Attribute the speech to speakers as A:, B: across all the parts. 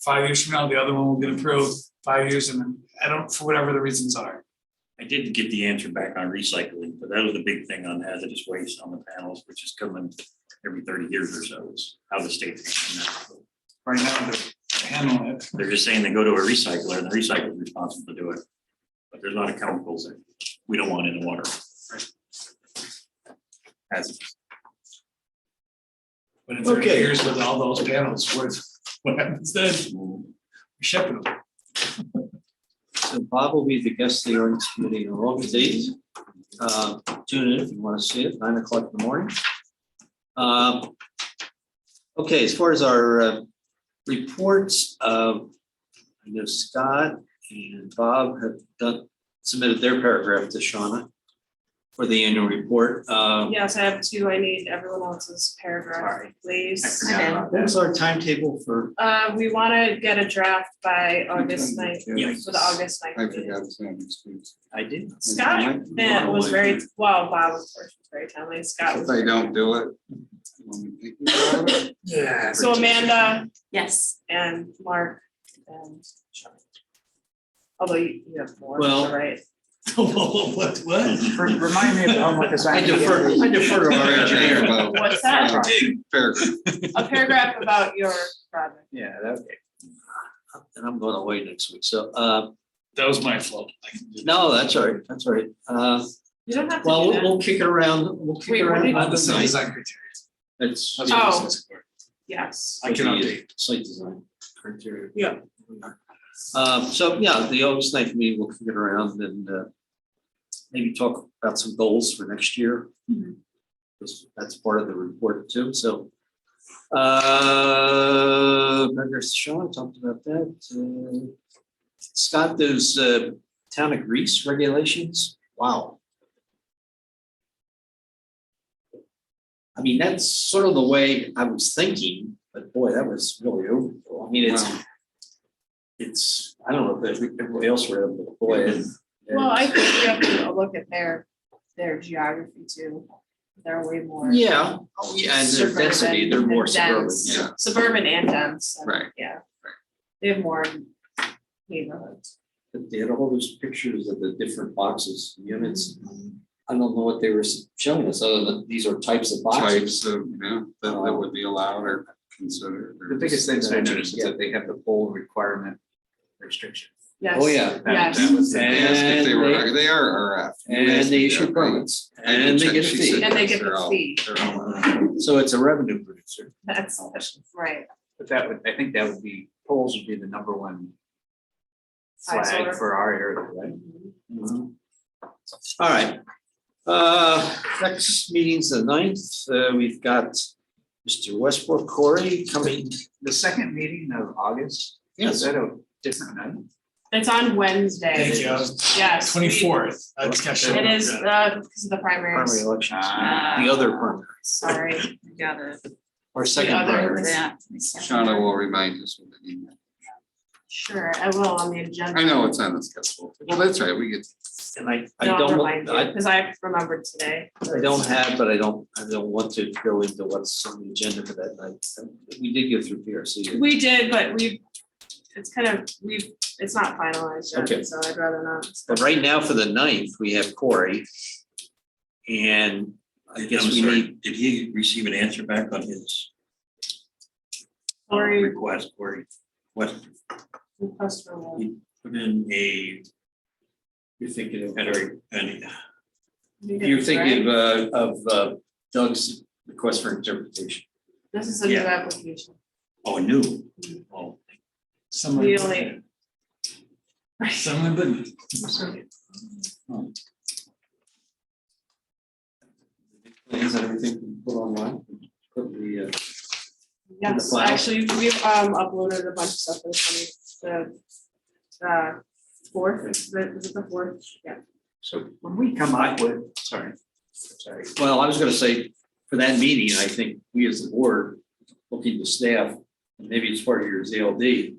A: Five years from now, the other one will get approved, five years, and then, I don't, for whatever the reasons are.
B: I did get the answer back on recycling, but that was the big thing on hazardous waste on the panels, which is coming every thirty years or so, is how the state. is doing that.
A: Right now, to handle it,
B: They're just saying they go to a recycler and the recycler is responsible to do it. But there's a lot of chemicals that we don't want in the water. As,
A: but in thirty
C: Okay.
A: years with all those panels, what, what happens then? Shipping them.
C: So Bob will be the guest of the ordinance committee on August eighth. Uh, Tune in if you want to see it, nine o'clock in the morning. Um, Okay, as far as our uh, reports, uh, I know Scott and Bob have done, submitted their paragraph to Shauna for the annual report. Uh,
D: Yes, I have two. I need everyone else's paragraph,
B: I
D: please.
B: forgot about that.
C: What's our timetable for,
D: Uh, we wanna get a draft by August ninth,
B: Yeah.
D: for the August ninth. meeting.
C: I did,
D: Scott eh, was very, well, Bob of course was very timely. Scott
E: If
D: was.
E: they don't do it. when we think about it,
A: Yeah.
D: So Amanda
F: Yes,
D: and Mark and Sean. Although you you have more,
C: Well-
D: right?
A: What, what?
G: Remind me of the homework
C: I
G: assignment.
C: defer, I defer to our engineer.
E: About
D: What's that?
E: uh, paragraph.
D: A paragraph about your project.
G: Yeah, that,
C: And I'm going away next week, so uh,
A: That was my fault. I can do that.
C: no, that's all right, that's all right. Uh,
D: You don't have to
C: Well,
D: do
C: we'll,
D: that.
C: we'll kick it around, we'll kick
D: Wait,
C: it
D: what
C: around.
D: did-
C: on
A: Not the
C: the
A: same
C: night.
A: design criteria.
C: It's.
A: That's what
D: Oh.
A: I'm saying.
D: Yes.
A: I can update.
C: Site design criteria.
D: Yeah.
C: Um, so, yeah, the August ninth meeting, we'll kick it around and, uh, maybe talk about some goals for next year.
D: Mhm.
C: That's, that's part of the report too, so. Uh, Member Sean talked about that. Uh, Scott, those, uh, town of Greece regulations, wow. I mean, that's sort of the way I was thinking, but boy, that was really overkill. I mean, it's,
E: Wow.
C: it's, I don't know if every- everybody else read it, but boy. it-
D: Well, I think we have to look at their, their geography too. They're way more.
C: Yeah, oh, yeah, and their density, they're more
D: Suburban and
C: suburban,
D: dense.
C: yeah.
D: Suburban and dense. and-
E: Right.
D: Yeah. They have more neighborhoods.
C: But They had all those pictures of the different boxes, units. I don't know what they were showing us, other than these are types of boxes.
E: Types of, yeah, that that would be allowed or considered. or-
G: the biggest things I noticed is that they have the poll requirement restriction.
D: Yes.
C: Oh, yeah.
G: That-
D: Yes.
G: That was the
E: They asked if they
C: And
E: were, they are RF.
C: And they
E: Yes,
C: issue
E: are.
C: permits,
E: I did
C: and they
E: check,
C: get a
E: she
C: fee,
E: said
D: And they
E: yes,
D: get the
E: they're all-
D: fee.
E: they're all allowed.
C: so it's a revenue producer.
D: That's, right.
G: But that would, I think that would be, polls would be the number one
D: Size order.
G: flag for our area, right?
D: Mm-hmm.
C: All right. Uh, next meeting's the ninth. Uh, we've got Mr. Westbrook Corey coming.
G: The second meeting of August, is that a different night?
D: It's on
A: Thank
D: Wednesday.
A: you.
D: Yes. we-
A: Twenty-fourth. I just got shut
D: It
A: up.
D: is, uh, because of the
C: Primary
D: primaries.
C: election,
D: Ah.
C: the other primary,
D: Sorry, you got it.
C: or second
D: other-
C: primary.
F: that.
E: Shauna will remind us. with an email.
D: Sure, I will on the agenda.
E: I know it's on the schedule. Well, that's right, we get.
C: And I, I
D: No, I'll
C: don't,
D: remind
C: want-
D: you,
C: I,
D: because I remembered today.
C: I don't have, but I don't, I don't want to go into what's on the agenda for that night. We did go through PRC.
D: We did, but we, it's kind of, we've, it's not finalized
C: Okay.
D: yet, so I'd rather not.
C: But right now for the ninth, we have Corey. And I guess
B: I'm
C: we
B: sorry,
C: need,
B: Did he receive an answer back on his uh,
D: Sorry,
B: request, Cory? What,
D: request for one.
B: put in a,
C: you're thinking of,
B: had a, an
C: you're thinking of, uh, of uh, Doug's request for interpretation.
D: This is a new
B: Yeah.
D: application.
B: Oh, new. Oh,
A: Someone-
D: We only-
A: Someone but. Oh.
C: plans and everything we put online. Put the, uh, In the
D: Yes,
C: file?
D: actually, we've um uploaded a bunch of stuff for the, the uh, fourth, is it is it the fourth? Yeah.
G: So when we come up with, sorry, sorry,
C: Well, I was gonna say, for that meeting, I think we as the board, looking to staff, and maybe it's part of your ZLD.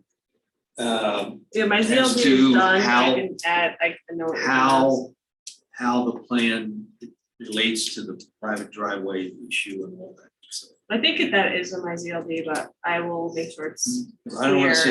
C: um,
D: Yeah, my
C: As
D: ZLD is
C: to
D: done,
C: how-
D: I can add, I can know. what it is.
C: How, how the plan relates to the private driveway issue and all that. So
D: I think that is in my ZLD, but I will make sure it's
C: Mm, I don't wanna
D: Clear.
C: say